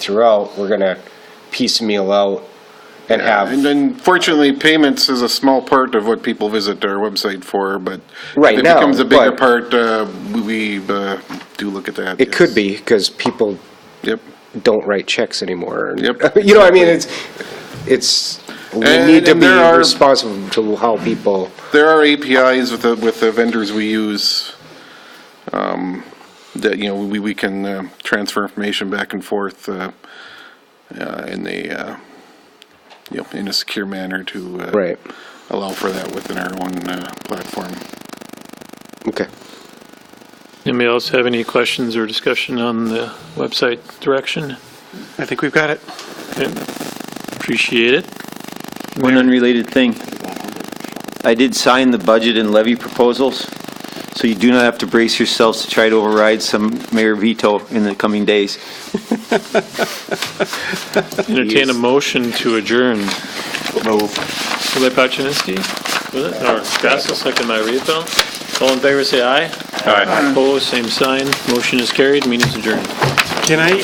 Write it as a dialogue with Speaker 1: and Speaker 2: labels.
Speaker 1: throughout, we're gonna piecemeal out and
Speaker 2: And
Speaker 1: have,
Speaker 2: then fortunately, payments is a small part of what people visit our website for, but
Speaker 1: Right
Speaker 2: if it
Speaker 1: now,
Speaker 2: becomes a bigger
Speaker 1: but-
Speaker 2: part, uh, we uh, do look at that.
Speaker 1: it could
Speaker 2: yes.
Speaker 1: be, because people
Speaker 2: Yep.
Speaker 1: don't write checks anymore.
Speaker 2: Yep.
Speaker 1: You know, what I mean, it's, it's, we
Speaker 2: And-
Speaker 1: need to
Speaker 2: and
Speaker 1: be
Speaker 2: there are-
Speaker 1: responsible to how people,
Speaker 2: There are APIs with the, with the vendors we use um, that, you know, we, we can uh, transfer information back and forth uh, uh, in a, uh, you know, in a secure manner to uh,
Speaker 1: right,
Speaker 2: allow for that within our own uh, platform.
Speaker 1: okay.
Speaker 3: Anybody else have any questions or discussion on the website direction?
Speaker 4: I think we've got it.
Speaker 3: Appreciate it.
Speaker 5: One unrelated thing. I did sign the budget and levy proposals, so you do not have to brace yourselves to try to override some mayor veto in the coming days.
Speaker 3: Entertain a motion to adjourn. Move. by Pachinsky, was it? Or Gasko, second by Rehfeld. All in favor, say aye. Aye. Opposed, same sign. Motion is carried, meeting is adjourned.
Speaker 4: Can I